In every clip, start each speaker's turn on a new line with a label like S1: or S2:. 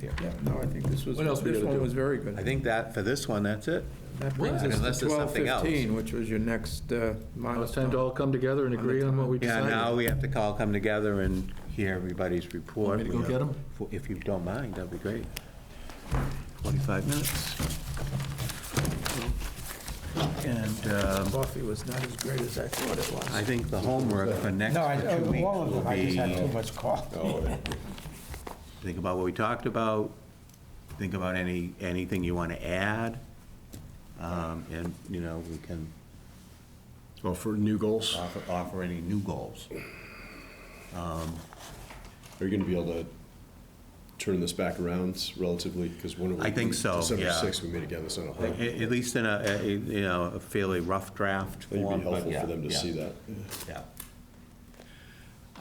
S1: there. Yeah, no, I think this was,
S2: What else we
S1: this
S2: gotta
S1: one
S2: do?
S1: was very good.
S3: I think that, for this one, that's it.
S1: That brings
S2: Well,
S1: us
S3: unless
S1: to
S3: there's
S1: twelve
S3: something else.
S1: fifteen, which was your next uh,
S2: Now it's time to all
S1: milestone.
S2: come together and agree on what we
S3: Yeah,
S2: decided.
S3: now we have to all come together and hear everybody's report.
S2: Want me to go get 'em?
S3: If you don't mind, that'd be great. 45 minutes. And um,
S1: Coffee was not as great as I thought it
S3: I
S1: was.
S3: think the homework for next
S4: No, I,
S3: two weeks
S4: all of
S3: will
S4: them, I just had too
S3: be,
S4: much coffee.
S3: think about what we talked about, think about any, anything you want to add, um, and, you know, we can
S5: Oh, for new goals?
S3: offer, offer any new goals.
S5: Are you going to be able to turn this back around relatively? Because when are we?
S3: I think so,
S5: December
S3: yeah.
S5: 6th, we meet again, that's not a whole.
S3: At,
S5: It'd
S3: at least in a, a- a, you know, a fairly rough draft
S5: be
S3: form. but
S5: helpful
S3: yeah,
S5: for them to
S3: yeah,
S5: see that. Yeah.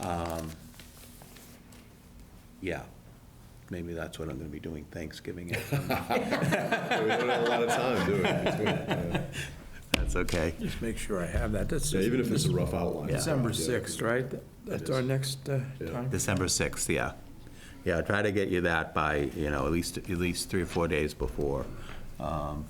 S3: Yeah. Um, Yeah, maybe that's what I'm gonna be doing Thanksgiving.
S5: We don't have a lot of time, do we? Between, uh,
S3: That's okay.
S1: Just make sure I have that. That's
S5: Yeah, even if it's a rough outline.
S1: December
S5: Yeah.
S1: 6th, right? That's our next uh,
S5: Yeah.
S1: time.
S3: December 6th, yeah. Yeah, try to get you that by, you know, at least, at least three or four days before. Um,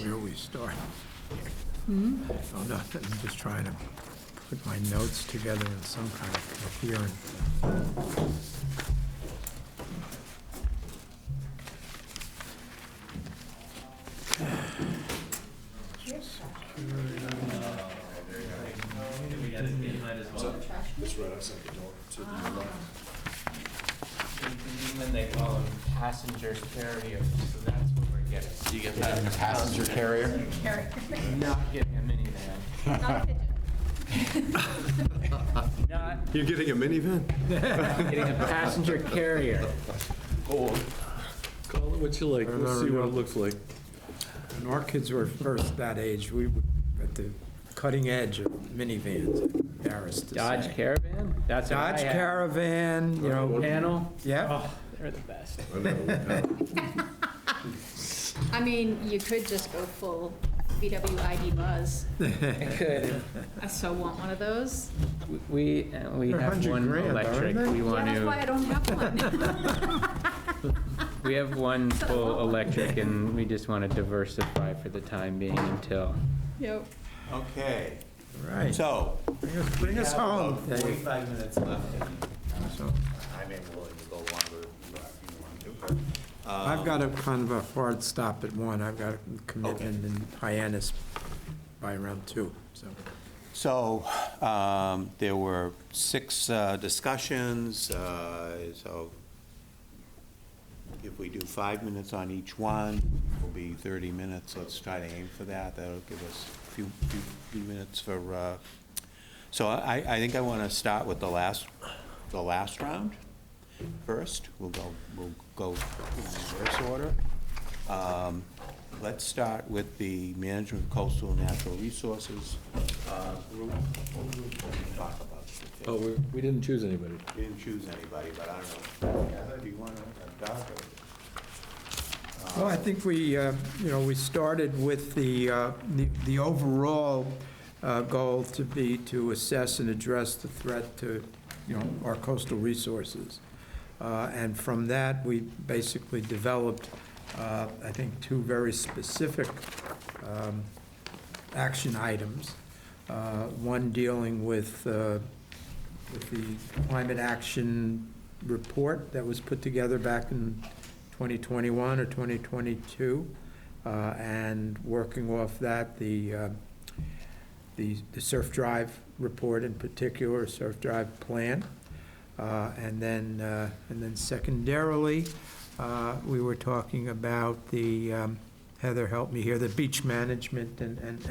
S1: Where we start? Oh, nothing, I'm just trying to put my notes together in some kind of coherent.
S5: It's right outside the door. so it'd be a lot.
S6: In England, they call them passenger carriers, so that's what we're getting. You get that in a passenger carrier?
S7: Carrot.
S6: Not getting a minivan.
S7: Not a pigeon.
S6: Not
S5: You're getting a minivan?
S6: getting a passenger carrier.
S2: Call it what you like, let's see what it looks like.
S1: When our kids were first that age, we were at the cutting edge of minivans, embarrassed to
S6: Dodge
S1: say.
S6: Caravan? That's what I
S1: Dodge
S6: had.
S1: Caravan, you know,
S6: Panel?
S1: yeah.
S6: Oh, they're the best.
S5: I know.
S7: I mean, you could just go full VW ID Buzz.
S6: Good.
S7: I so want one of those.
S6: We, uh, we
S1: They're
S6: have
S1: 100
S6: one
S1: grand, aren't
S6: electric,
S1: they?
S6: we
S7: Yeah,
S6: want
S7: that's why
S6: to,
S7: I don't have one.
S6: we have one full electric and we just want to diversify for the time being until.
S7: Yep.
S3: Okay,
S1: Right.
S3: so.
S1: Bring us- Bring us home, Dave.
S3: Forty-five minutes left.
S1: So,
S3: I may be willing to go longer if you want to.
S1: I've got a kind of a hard stop at one. I've got a commitment in Hyannis by around two, so.
S3: So, um, there were six uh, discussions, uh, so if we do five minutes on each one, it'll be 30 minutes, let's try to aim for that, that'll give us a few, few- few minutes for, uh, so I, I think I want to start with the last, the last round first, we'll go, we'll go in reverse order. Um, Let's start with the management of coastal and natural resources uh, group. What group did we talk about?
S2: Oh, we, we didn't choose anybody.
S3: We didn't choose anybody, but I don't know. Heather, do you uh, want to adopt it?
S1: Well, I think we, uh, you know, we started with the, uh, the- the overall uh, goal to be to assess and address the threat to, you know, our coastal resources. Uh, And from that, we basically developed, uh, I think, two very specific um, action items. Uh, One dealing with uh, with the climate action report that was put together back in 2021 or 2022, uh, and working off that, the, uh, the the surf drive report in particular, surf drive plan. Uh, And then, uh, and then secondarily, uh, we were talking about the, um, Heather helped me here, the beach management and, and